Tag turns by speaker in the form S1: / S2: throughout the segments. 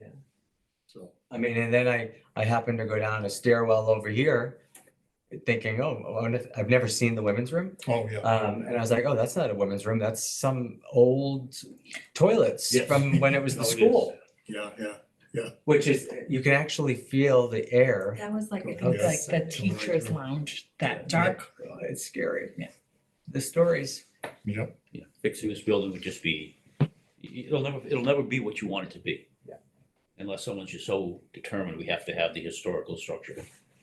S1: Yeah.
S2: So,
S1: I mean, and then I, I happened to go down a stairwell over here thinking, oh, I wonder if- I've never seen the women's room.
S3: Oh, yeah.
S1: Um, and I was like, oh, that's not a women's room. That's some old toilets
S2: Yes.
S1: from when it was the
S2: Oh, it is.
S1: school,
S3: Yeah, yeah.
S1: which is, you can actually feel the air.
S4: That was like,
S3: Go
S4: it was
S1: to
S4: like
S3: the side.
S4: the teacher's lounge, that dark,
S1: Oh, It's scary.
S4: Yeah.
S1: The stories.
S3: Yep.
S5: Yeah, fixing this building would just be, it'll never, it'll never be what you want it to be.
S1: Yeah.
S5: Unless someone's just so determined, we have to have the historical structure.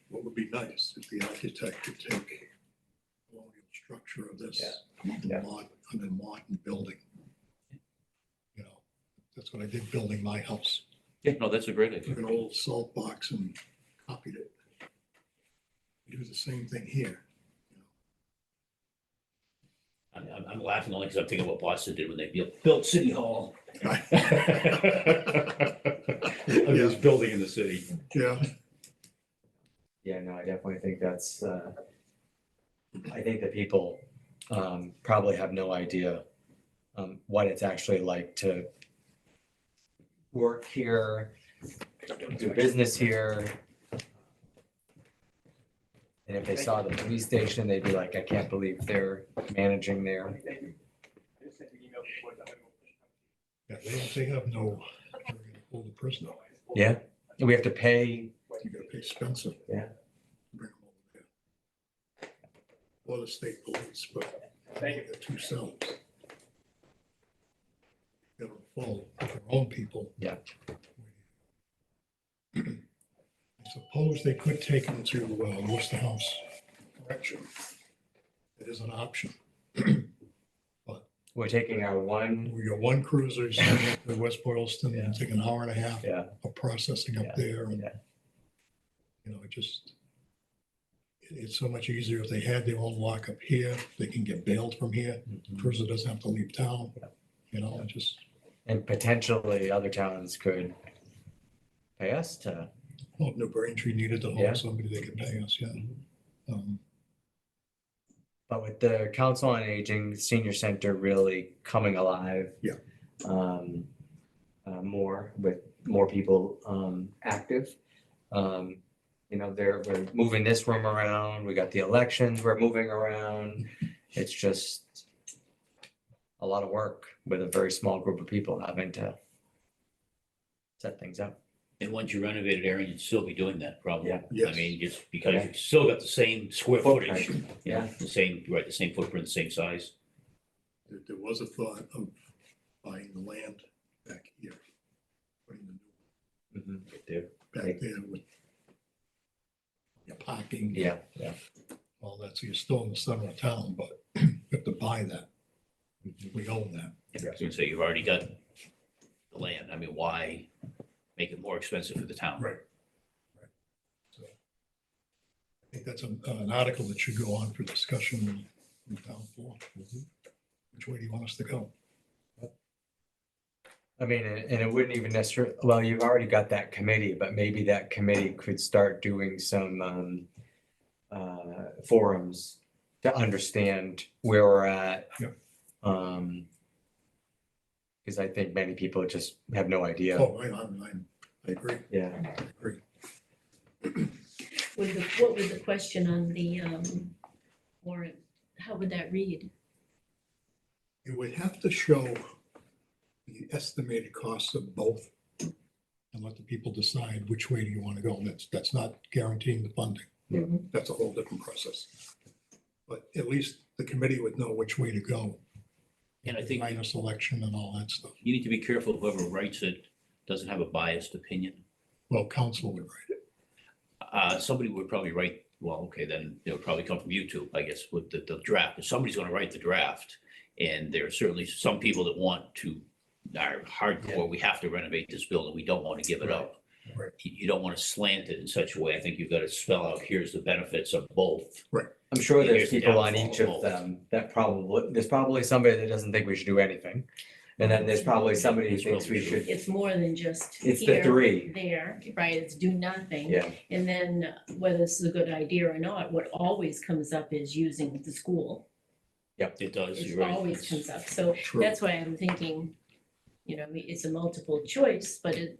S3: What would be nice if the architect could take the colonial structure of this
S1: Yeah.
S3: under modern, under modern building. You know, that's what I did building my house.
S5: Yeah, no, that's a great
S3: Took an old salt box and copied it. Do the same thing here.
S5: I'm, I'm- I'm laughing only because I'm thinking what Boston did when they built- built City Hall. This building in the city.
S3: Yeah,
S1: Yeah, no, I definitely think that's, uh, I think that people, um, probably have no idea, um, what it's actually like to work here, do business here. And if they saw the police station, they'd be like, I can't believe they're managing there.
S3: yeah, they, don't- they have no, they're gonna hold the prisoner.
S1: Yeah, we have to pay,
S3: You gotta pay Spencer.
S1: Yeah.
S3: Bring 'em over there. Or the state police, but they got two cells. They're full of their own people.
S1: Yeah.
S3: I suppose they could take them to uh, Worcester House Correction. It is an option.
S1: we're taking our one,
S3: We got one cruiser, send it to West Boylston,
S1: Yeah.
S3: take an hour and a half
S1: yeah.
S3: of processing
S1: Yeah,
S3: up there and,
S1: yeah.
S3: you know, it just, it- it's so much easier if they had their own lock up here, they can get bailed from here, cruiser doesn't have to leave town, you know, it just,
S1: And potentially other towns could pay us to,
S3: well, New Braintree needed to
S1: Yeah. Mm-hmm.
S3: hold somebody they could pay us, yeah. Um,
S1: but with the Council on Aging, the Senior Center really coming alive.
S3: Yeah.
S1: Um, uh, more with more people, um, active. Um, you know, they're, we're moving this room around. We got the elections, we're moving around. It's just a lot of work with a very small group of people having to set things up.
S5: And once you renovate it, Aaron, you'd still be doing that probably.
S1: Yeah.
S3: Yes.
S5: I mean, just because you've still got the same square footage.
S1: Footprint, yeah.
S5: The same, right, the same footprint, same size.
S3: There there was a thought of buying the land back here, putting the new
S1: Mhm.
S5: right There.
S3: back there with your parking.
S1: Yeah, yeah.
S3: All that, so you're still in the center of town, but you have to buy that,
S1: Mm-hmm.
S3: we own that.
S5: I was gonna say, you've already got the land. I mean, why make it more expensive for the town?
S3: Right. Right. So, I think that's an, an article that should go on for discussion in town floor.
S1: Mm-hmm.
S3: Which way do you want us to go?
S1: I mean, and and it wouldn't even necessarily, well, you've already got that committee, but maybe that committee could start doing some um. Uh, forums to understand where we're at.
S3: Yep.
S1: Um. Cause I think many people just have no idea.
S3: Oh, I, I, I- I agree,
S1: Yeah,
S3: I agree.
S6: Would the, what would the question on the um, warrant, how would that read?
S3: You would have to show the estimated costs of both and let the people decide which way do you want to go. And that's, that's not guaranteeing the funding.
S1: Yeah.
S3: That's a whole different process. But at least the committee would know which way to go.
S5: And I think-
S3: Minus election and all that stuff.
S5: You need to be careful whoever writes it doesn't have a biased opinion.
S3: Well, council would write
S5: Uh, somebody would probably write, well, okay, then it would probably come from you two, I guess, with the, the draft. If somebody's gonna write the draft, and there are certainly some people that want to, are hardcore, we have to renovate this building, we don't want to give it up.
S3: Right.
S5: You, you don't want to slant it in such a way. I think you've got to spell out, here's the benefits of both.
S1: I'm sure
S5: And
S1: there's
S5: here's the
S1: people on
S5: downfall
S1: each
S5: of
S1: of
S5: both.
S1: them that probably, there's probably somebody that doesn't think we should do anything. And then there's probably somebody who
S5: It's
S1: thinks we
S5: probably true.
S1: should,
S6: It's more than just
S1: it's the
S6: here,
S1: three,
S6: there, right, it's do nothing.
S1: yeah,
S6: And then whether this is a good idea or not, what always comes up is using the school.
S5: It does,
S6: It
S5: you're right.
S6: always comes up. So
S3: it. True.
S6: that's why I'm thinking, you know, it's a multiple choice, but it,